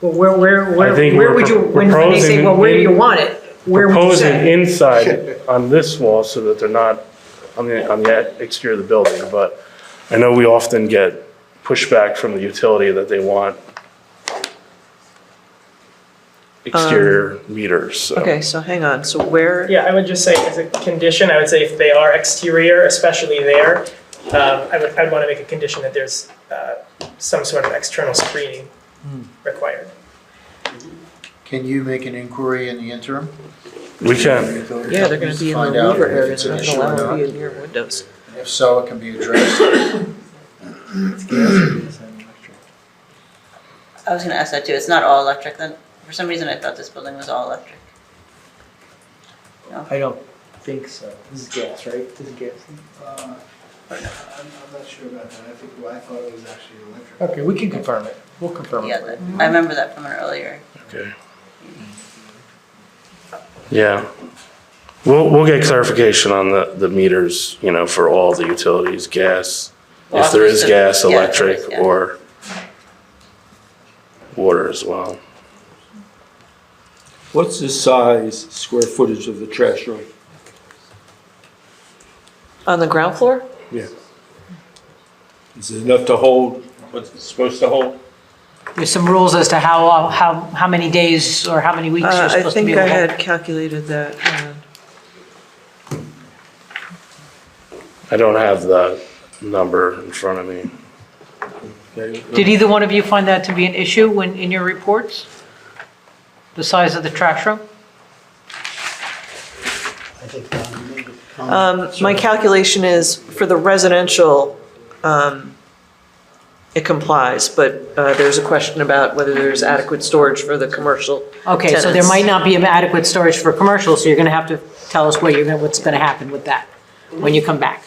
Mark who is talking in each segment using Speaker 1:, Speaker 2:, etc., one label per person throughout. Speaker 1: Well, where, where,
Speaker 2: I think
Speaker 1: where, where
Speaker 2: we're
Speaker 1: would you,
Speaker 2: pro-
Speaker 1: when they say, well, where do you want
Speaker 2: proposing in-
Speaker 1: it? Where would you
Speaker 2: proposing
Speaker 1: say?
Speaker 2: inside on this wall so that they're not on the, on the exterior of the building, but I know we often get pushback from the utility that they want exterior meters, so.
Speaker 3: Okay, so hang on, so where,
Speaker 4: Yeah, I would just say as a condition, I would say if they are exterior, especially there, um, I would, I'd want to make a condition that there's uh, some sort of external screening required.
Speaker 5: Can you make an inquiry in the interim?
Speaker 2: We can,
Speaker 3: yeah, they're gonna be in the
Speaker 5: Find out
Speaker 3: louver
Speaker 5: if
Speaker 3: area,
Speaker 5: it's
Speaker 3: they're
Speaker 5: an
Speaker 3: not
Speaker 5: issue
Speaker 3: gonna
Speaker 5: or
Speaker 3: allow them to be
Speaker 5: not.
Speaker 3: in your windows.
Speaker 5: If so, it can be
Speaker 6: Uh,
Speaker 5: addressed.
Speaker 7: I was gonna ask that too, it's not all electric then? For some reason, I thought this building was all electric.
Speaker 8: I don't think so. This is gas, right? This is gas.
Speaker 6: Uh, I'm I'm not sure about that. I think, well, I thought it was actually electric.
Speaker 8: Okay, we can confirm it. We'll confirm
Speaker 7: Yeah,
Speaker 8: it. for you.
Speaker 7: that- I remember that from an earlier.
Speaker 2: okay. Yeah. We'll, we'll get clarification on the, the meters, you know, for all the utilities, gas, if there is gas,
Speaker 7: Yeah, if there is,
Speaker 2: electric,
Speaker 7: yeah.
Speaker 2: or water as well.
Speaker 9: What's the size, square footage of the trash room?
Speaker 3: On the ground floor?
Speaker 9: Yeah. Is it enough to hold what's it supposed to hold?
Speaker 10: There's some rules as to how, uh, how, how many days or how many weeks
Speaker 3: Uh,
Speaker 10: you're
Speaker 3: I
Speaker 10: supposed to be
Speaker 3: think I
Speaker 10: able to.
Speaker 3: had calculated that, uh, hang on.
Speaker 2: I don't have the number in front of me.
Speaker 10: Did either one of you find that to be an issue when, in your reports? The size of the trash room?
Speaker 6: I think, um, maybe come-
Speaker 3: Um, my calculation is for the residential, um, it complies, but, uh, there's a question about whether there's adequate storage for the commercial.
Speaker 10: Okay, so there
Speaker 3: Tenants.
Speaker 10: might not be adequate storage for commercial, so you're gonna have to tell us what you're, gonna- what's gonna happen with that when you come back.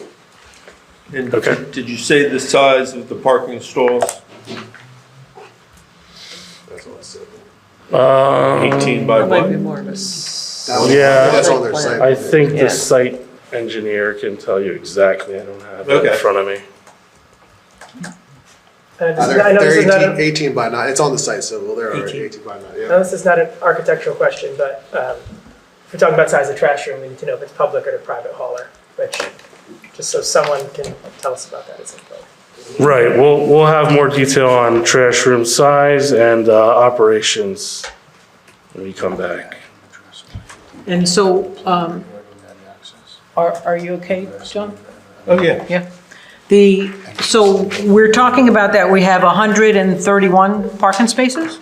Speaker 9: And
Speaker 2: Okay.
Speaker 9: did- Did you say the size of the parking stalls?
Speaker 2: Um,
Speaker 9: 18 by
Speaker 3: There might be
Speaker 9: what?
Speaker 3: more of a s-
Speaker 6: That was-
Speaker 2: Yeah.
Speaker 6: That's on their
Speaker 3: Site plan.
Speaker 6: site.
Speaker 2: I think
Speaker 3: Yeah.
Speaker 2: the site engineer can tell you exactly. I don't have it in
Speaker 9: Okay.
Speaker 2: front of me.
Speaker 4: Uh, this
Speaker 6: Uh,
Speaker 4: is not- I
Speaker 6: They're
Speaker 4: know this
Speaker 6: they're
Speaker 4: is not a-
Speaker 6: 18 18 by 9, it's on the site, so well, they're already
Speaker 4: 18.
Speaker 6: 18 by 9,
Speaker 4: I
Speaker 6: yeah.
Speaker 4: know this is not an architectural question, but um, if we're talking about size of trash room, we need to know if it's public or a private hauler, which, just so someone can tell us about that at some point.
Speaker 2: Right, we'll, we'll have more detail on trash room size and uh, operations when we come back.
Speaker 10: And so, um, are, are you okay, John?
Speaker 3: Um,
Speaker 9: Oh, yeah.
Speaker 10: The, so we're talking about that we have 131 parking spaces?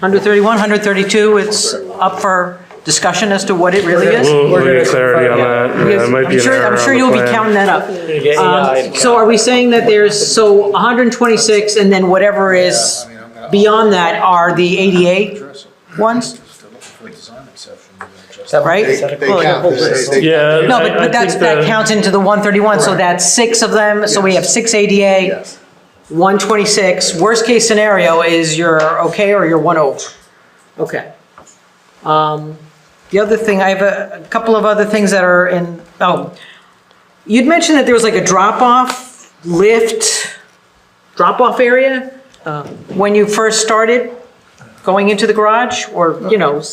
Speaker 10: 131, 132, it's up for discussion as to what it really is?
Speaker 2: We'll, we'll get clarity on
Speaker 4: Yeah.
Speaker 2: that. Yeah, it might be
Speaker 10: I'm
Speaker 2: an
Speaker 10: sure,
Speaker 2: error
Speaker 10: I'm
Speaker 2: on
Speaker 10: sure
Speaker 2: the
Speaker 10: you'll be
Speaker 2: plan.
Speaker 10: counting that up.
Speaker 4: You're getting
Speaker 11: uh,
Speaker 10: Um, So are we saying that there's, so 126 and then whatever is
Speaker 5: I mean, I'm gonna-
Speaker 10: beyond that are the 88
Speaker 5: Address it.
Speaker 10: ones?
Speaker 5: If they're looking for a design exception, they're gonna address it.
Speaker 10: Right?
Speaker 6: They they count, this- they- they-
Speaker 2: Yeah.
Speaker 10: No,
Speaker 2: I-
Speaker 10: but,
Speaker 2: I
Speaker 10: but that's,
Speaker 2: think
Speaker 10: that
Speaker 2: the-
Speaker 10: counts into the 131, so
Speaker 6: Correct.
Speaker 10: that's six of them, so we
Speaker 6: Yes.
Speaker 10: have six ADA,
Speaker 6: yes.
Speaker 10: 126. Worst case scenario is you're okay or you're one over. Okay. Um, The other thing, I have a, a couple of other things that are in, oh, you'd mentioned that there was like a drop-off lift, drop-off area um,
Speaker 3: Uh.
Speaker 10: when you first started going into the garage, or, you know, s-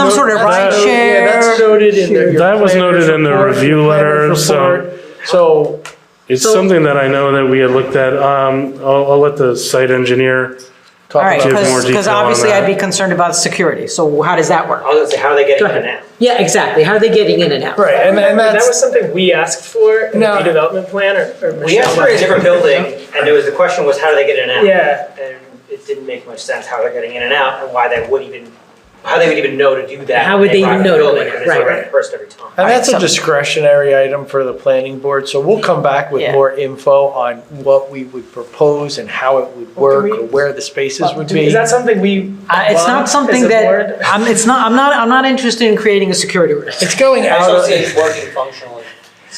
Speaker 10: some sort of ride
Speaker 2: that's-
Speaker 10: share?
Speaker 8: Yeah, that's noted in the. your
Speaker 2: That was
Speaker 8: planner's
Speaker 2: noted in the
Speaker 8: report,
Speaker 2: review
Speaker 8: your
Speaker 2: letter,
Speaker 8: planner's
Speaker 2: so-
Speaker 8: report. So
Speaker 2: It's something that I know that we had looked at. Um, I'll, I'll let the site engineer,
Speaker 10: All right,
Speaker 2: Give more
Speaker 10: because,
Speaker 2: detail on
Speaker 10: obviously
Speaker 2: that.
Speaker 10: I'd be concerned about security, so how does that work?
Speaker 8: was gonna say, how are they getting
Speaker 10: ahead.
Speaker 8: now?
Speaker 10: Yeah, exactly, how are they getting in and out?
Speaker 8: Right, and, and
Speaker 4: That
Speaker 8: that's,
Speaker 4: was something we asked for in the
Speaker 8: No.
Speaker 4: redevelopment plan, or- or?
Speaker 11: We asked for a different building, and it was, the question was how do they get in and out?
Speaker 4: Yeah.
Speaker 11: And it didn't make much sense how they're getting in and out, and why they would even, how they would even know to do that.
Speaker 10: How
Speaker 11: when
Speaker 10: would they
Speaker 11: bought
Speaker 10: even
Speaker 11: a
Speaker 10: know to do
Speaker 11: building,
Speaker 10: that?
Speaker 11: because they
Speaker 10: Right.
Speaker 11: were at First every time.
Speaker 8: and that's a discretionary item for the planning board, so we'll come back with
Speaker 10: Yeah.
Speaker 8: more info on what we would propose and how it would
Speaker 4: Well,
Speaker 8: work,
Speaker 4: can
Speaker 8: or
Speaker 4: we-
Speaker 8: where the spaces would be.
Speaker 4: Is that something we?
Speaker 10: Uh, It's
Speaker 4: want
Speaker 10: not
Speaker 4: as a
Speaker 10: something
Speaker 4: board?
Speaker 10: that, I'm, it's not, I'm not, I'm not interested in creating a security risk.
Speaker 8: It's going
Speaker 11: I
Speaker 8: out
Speaker 11: also
Speaker 8: of,
Speaker 11: see it working functionally.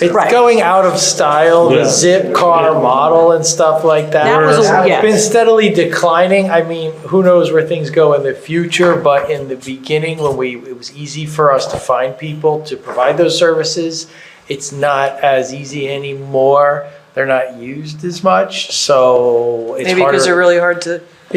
Speaker 8: it's
Speaker 10: Right.
Speaker 8: going out of style,
Speaker 2: Yeah.
Speaker 8: the zip car model and stuff like that.
Speaker 10: That was a-
Speaker 8: It's Been
Speaker 10: yes.
Speaker 8: steadily declining. I mean, who knows where things go in the future, but in the beginning, when we, it was easy for us to find people to provide those services, it's not as easy anymore. They're not used as much, so it's
Speaker 3: Maybe because they're
Speaker 8: harder.
Speaker 3: really hard to